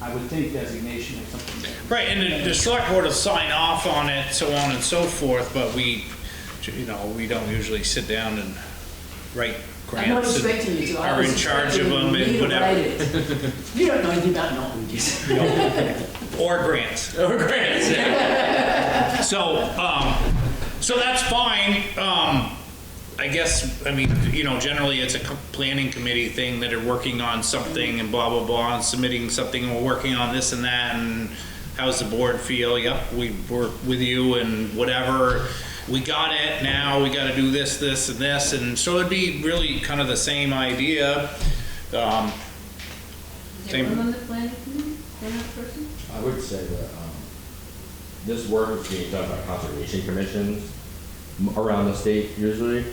I would think designation or something. Right, and the, the select board will sign off on it, so on and so forth, but we, you know, we don't usually sit down and write grants. I'm not and expecting you to. I Are was in charge of expecting them me and to whatever, write it. You don't know anything about Norwegians. or grants. Or grants, So, um, so that's fine, um, I guess, I mean, you know, generally it's a co- planning committee thing that are working on something and blah, blah, blah, and submitting something, and we're working on this and that, and how's the board feel? Yep, we work with you and whatever, we got it, now we gotta do this, this, and this, and so it'd be really kind of the same idea. Um, Is Same. everyone on the planning committee, one other person? I would say that um, this work is being done by conservation commissions m- around the state usually.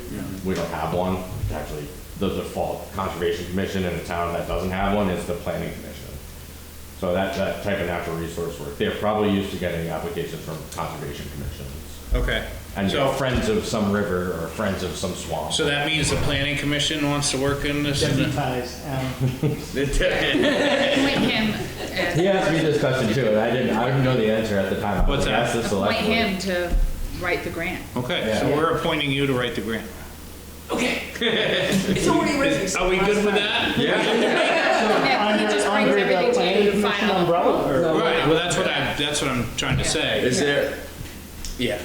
We don't have one, actually. The default conservation commission in a town that doesn't have one is the planning commission. So that, that type of natural resource work, they're probably used to getting applications from conservation commissions. okay, And so. friends of some river or friends of some swamp. So that means the planning commission wants to work in this? Deputize, um, Appoint him uh, as. He asked me this question too, and I didn't, I didn't know the answer at the time. I What's that? asked the select Appoint board. him to write the grant. Okay, so Yeah. we're appointing you to write the grant. Okay. It's already written. so Are we why good is with that? that? Yeah, he under- just brings under the everything to planning you to commission file. umbrella, or- Right, well, that's what I, that's what I'm trying to say. Is there? Yeah.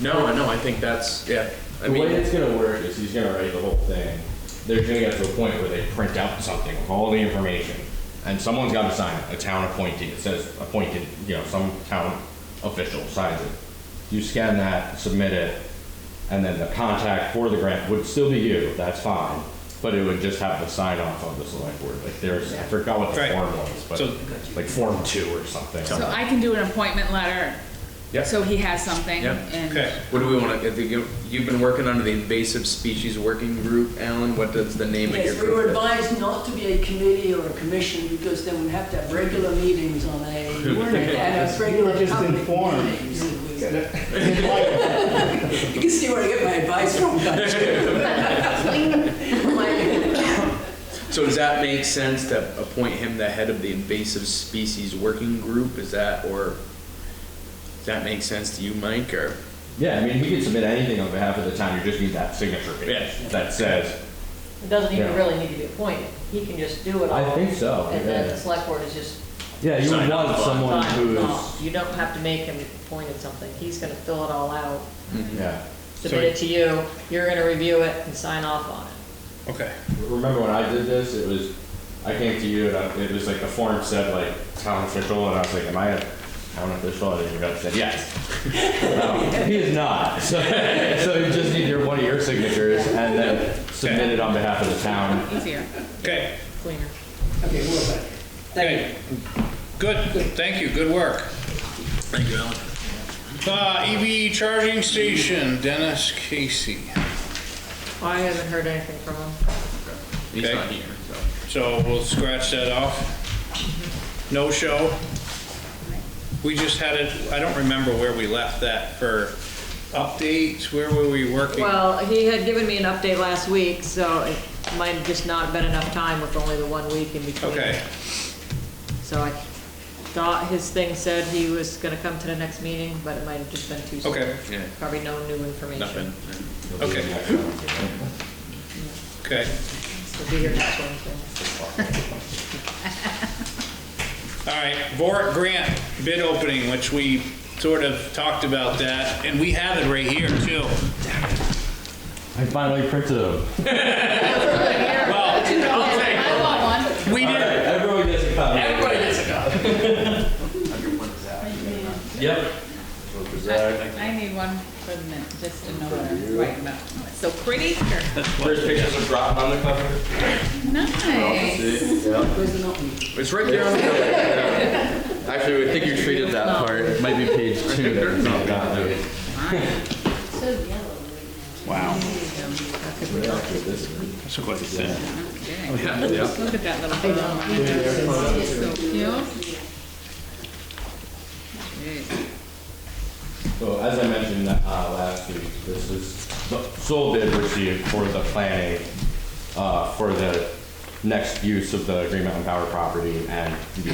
No, no, I think that's yeah. I The way mean, it's gonna work is he's gonna write the whole thing. They're gonna get to a point where they print out something with all the information, and someone's gotta sign it, a town appointee. It says appointed, you know, some town official signs it. You scan that, submit it, and then the contact for the grant would still be you, that's fine. But it would just have the sign off of the select board, like there's, I forgot what the Right. form was, but So- like form two or something. So I can do an appointment letter. Yep. So he has something Yep. Okay, and what do we want to? You've been working under the invasive species working group, Alan. What does the name of your Yes, we group? were advised not to be a committee or a commission because then we'd have to have regular meetings on a, You weren't and a advised. You regular were just public informed. meetings. It was- You can see where I get my advice from, can't you? My- so does that make sense to appoint him the head of the invasive species working group? Is that or does that make sense to you, Mike? Or Yeah, I mean, he could submit anything on behalf of the town, you just need that signature page Yeah. that says, It doesn't even Yeah. really need to be appointed. He can just do it all. I think so, And then yeah. the select board is just. Yeah, you would Sign want off on. someone signing off. who's, You don't have to make him appointed something. He's gonna fill it all out, yeah. submit it to you, you're gonna review it and sign off on it. okay. Remember when I did this, it was, I came to you and I- it was like the form said like town official and I was like, am I a town official? And you guys said, yes. Um, He is not. So, so you just need your, one of your signatures and then submit it on behalf of the town. easier. Okay, Cleaner. Okay, we're back. okay. Good, thank you, good work. thank you, Alan. Uh, EV charging station, Dennis Casey. I haven't heard anything from him. He's Okay. not here. So. So we'll scratch that off. No show. We just had it, I don't remember where we left that for updates, where were we working? Well, he had given me an update last week, so it might have just not been enough time with only the one week in between. Okay, So I thought his thing said he was gonna come to the next meeting, but it might have just been too soon. Okay, yeah. Probably no new information. nothing. Okay, okay. We'll be here next Wednesday. All right, Vorak grant bid opening, which we sort of talked about that, and we have it right here too. I finally printed them. Well, I'll take I want one. We All right, did, everyone gets a copy. Everybody gets a copy. Yep. I I need one for the minute, just to know what I'm writing about. It's So pretty. There's pictures of Groton on the cover. Nice. Where's the not me? It's right there on the cover. Actually, I think you treated that part. Might be page two. that it's not got there. So yellow right now. that's quite a thing. Yeah, yeah. Look at that little thing. It's so cute. Jeez. So as I mentioned uh, last week, this is the sole bid received for the planning, uh, for the next use of the Green Mountain Power property and the